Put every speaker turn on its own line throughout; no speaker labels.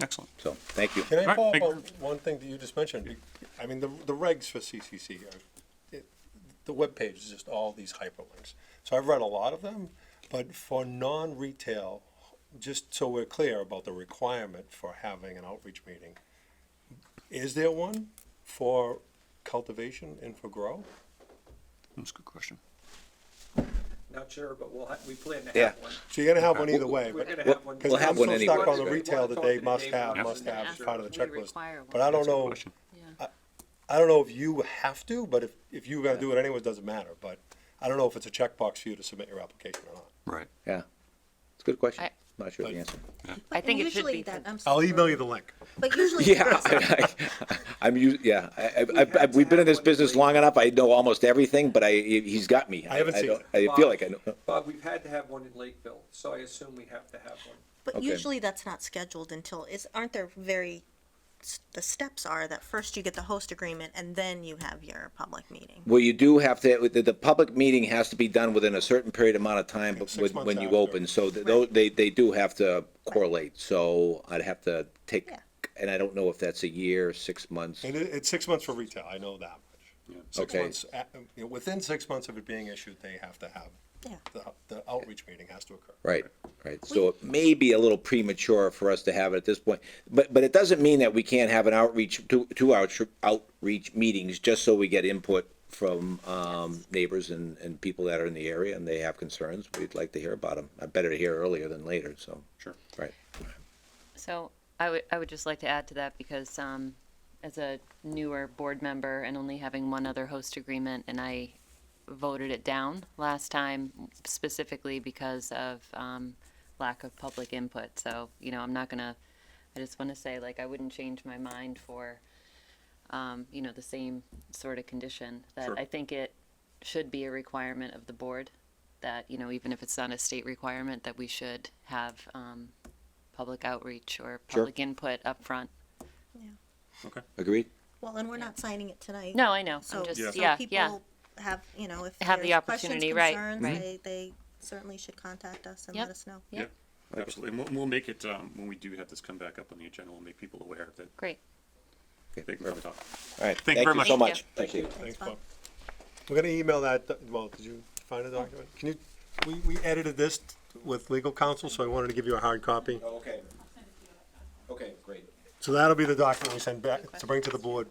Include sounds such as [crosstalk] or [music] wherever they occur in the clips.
Excellent.
So, thank you.
Can I
Alright,
follow up
thank-
on one thing that you just mentioned? I mean, the, the regs for CCC, are- it- the webpage is just all these hyperlinks. So I've run a lot of them, but for non-retail, just so we're clear about the requirement for having an outreach meeting, is there one for cultivation and for grow?
That's a good question.
Not sure, but we'll, ha- we plan to
Yeah.
have one.
So you're gonna have one either way,
We're
but,
gonna
We'll-
have one.
we'll
because
have
I'm
one
so
anyway.
stuck on the
We're
retail that
talking
they
to
must
Dave
have,
Watson
must
and
have as
after
part of the
we
checklist.
require
But I don't
That's a good
know,
question.
Yeah.
I don't know if you have to, but if, if you're gonna do it anyway, it doesn't matter, but I don't know if it's a checkbox for you to submit your application or not.
Right.
Yeah. It's a good question.
I-
Not sure of the answer. [laughs]
I think it should
usually
be.
that-
con-
I'm
I'll
sorry.
email you the link.
[laughs]
But usually.
Yeah, I, am used, yeah, I, I, I,
had to
we've been in
have
this
one
business
agreed.
long enough. I know almost everything, but I, he's got me.
I haven't seen
don't- I feel like I know.
Bob, we've had to have one in Lakeville, so I assume we have to have one.
But
Okay.
usually that's not scheduled until, is, aren't there very, s- the steps are that first you get the host agreement and then you have your public meeting.
Well, you do have to, the, the public meeting has to be done within a certain period amount of time
Six
when,
months
when you
after.
open, so th- tho- they, they do have to correlate, so I'd have to take,
Yeah.
and I don't know if that's a year, six months,
And it, it's six months for retail, I know that much. Six
Okay.
months, a- you know, within six months of it being issued, they have to have,
Yeah.
the, the outreach meeting has to occur.
right, right, so it may be a little premature for us to have it at this point, but, but it doesn't mean that we can't have an outreach, two, two outreach, outreach meetings, just so we get input from, um, neighbors and, and people that are in the area, and they have concerns, we'd like to hear about them, better to hear earlier than later, so.
Sure.
Right.
So I would, I would just like to add to that because, um, as a newer board member and only having one other host agreement, and I voted it down last time specifically because of, um, lack of public input. So, you know, I'm not gonna, I just wanna say, like, I wouldn't change my mind for, um, you know, the same sort of condition. That I think it should be a requirement of the board, that, you know, even if it's not a state requirement, that we should have, um, public outreach or
Sure.
public input up front.
Agreed?
Well, and we're not signing it tonight.
No, I know.
So,
I'm just,
so
yeah, yeah.
people have, you know, if
Have the
there's questions,
opportunity, right,
concerns,
right.
they, they certainly should contact us and
Yep.
let us know.
Yeah,
Absolutely. And we'll, we'll make it, um, when we do have this come back up on the agenda, we'll make people aware that
Great.
they can come talk.
All right.
Thank you very much.
so
Thank
much. Thank you.
Thanks, Bob. We're gonna email that, doc- well, did you find a document? Can you, we, we edited this with legal counsel, so I wanted to give you a hard copy.
Oh, Okay. Okay, great.
So that'll be the document we send back, to bring to the board,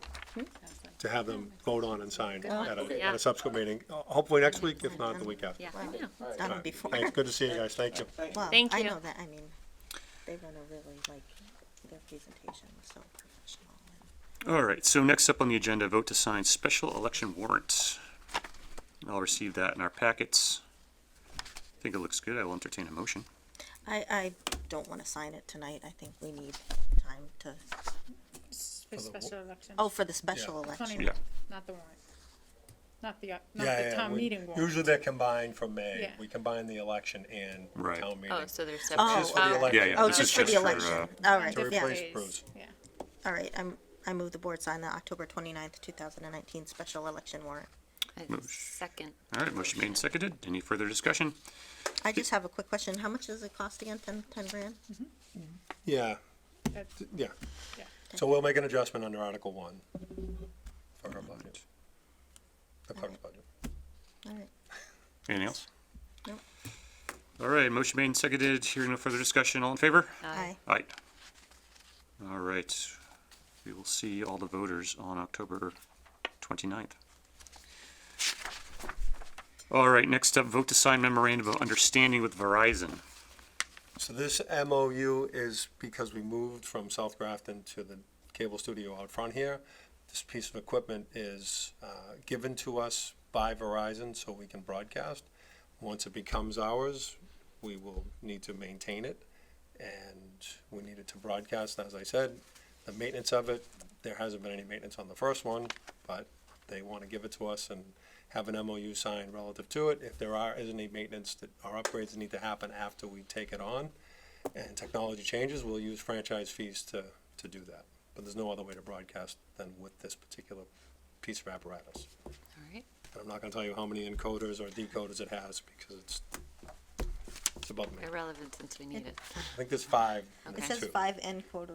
to have them vote on and sign at a, at
Yeah.
a subsequent meeting, Uh, hopefully next week, if not, the week after.
Yeah, I know.
It's done before.
Thanks, good to see you guys, thank you.
Well,
Thank
I
you.
know that, I mean, they run a really, like, their presentation was so professional.
All right, so next up on the agenda, vote to sign special election warrants. I'll receive that in our packets. I think it looks good. I will entertain a motion.
I, I don't wanna sign it tonight, I think we need time to,
For special election.
oh, for the special election.
Funny,
Yeah.
Not the warrant. Not the, uh, not the town meeting warrant.
Usually they're combined from May,
Yeah.
we combine the election and
Right.
town meeting.
Oh, so there's
Oh,
separate.
Just for the election.
Yeah, yeah,
Oh,
this is
just for the
just for, uh,
election, all right,
To
yeah,
replace
Days,
Bruce.
Yeah.
all right, I'm, I move the board sign the October twenty-ninth, two thousand and nineteen special election warrant.
Second.
All right, motion made and seconded. Any further discussion?
I just have a quick question, how much does it cost again, ten, ten grand?
Yeah,
That's-
yeah.
Yeah.
So we'll make an adjustment under Article One for her budget. The clerk's budget.
All right,
Anything else?
Nope.
All right, motion made and seconded. Hearing no further discussion. All in favor?
aye,
Aye. All right, we will see all the voters on October 29th. All right, next up, vote to sign memorandum of understanding with Verizon.
So this MOU is because we moved from South Grafton to the cable studio out front here. This piece of equipment is uh, given to us by Verizon so we can broadcast. Once it becomes ours, we will need to maintain it. And we need it to broadcast, as I said, the maintenance of it, there hasn't been any maintenance on the first one, but they want to give it to us and have an MOU signed relative to it. If there are, is any maintenance that, or upgrades that need to happen after we take it on, and technology changes, we'll use franchise fees to, to do that. But there's no other way to broadcast than with this particular piece of apparatus.
All right.
And I'm not gonna tell you how many encoders or decoders it has, because it's, it's above me.
Irrelevant since we need it.
I think there's five.
it
two.
says five end quota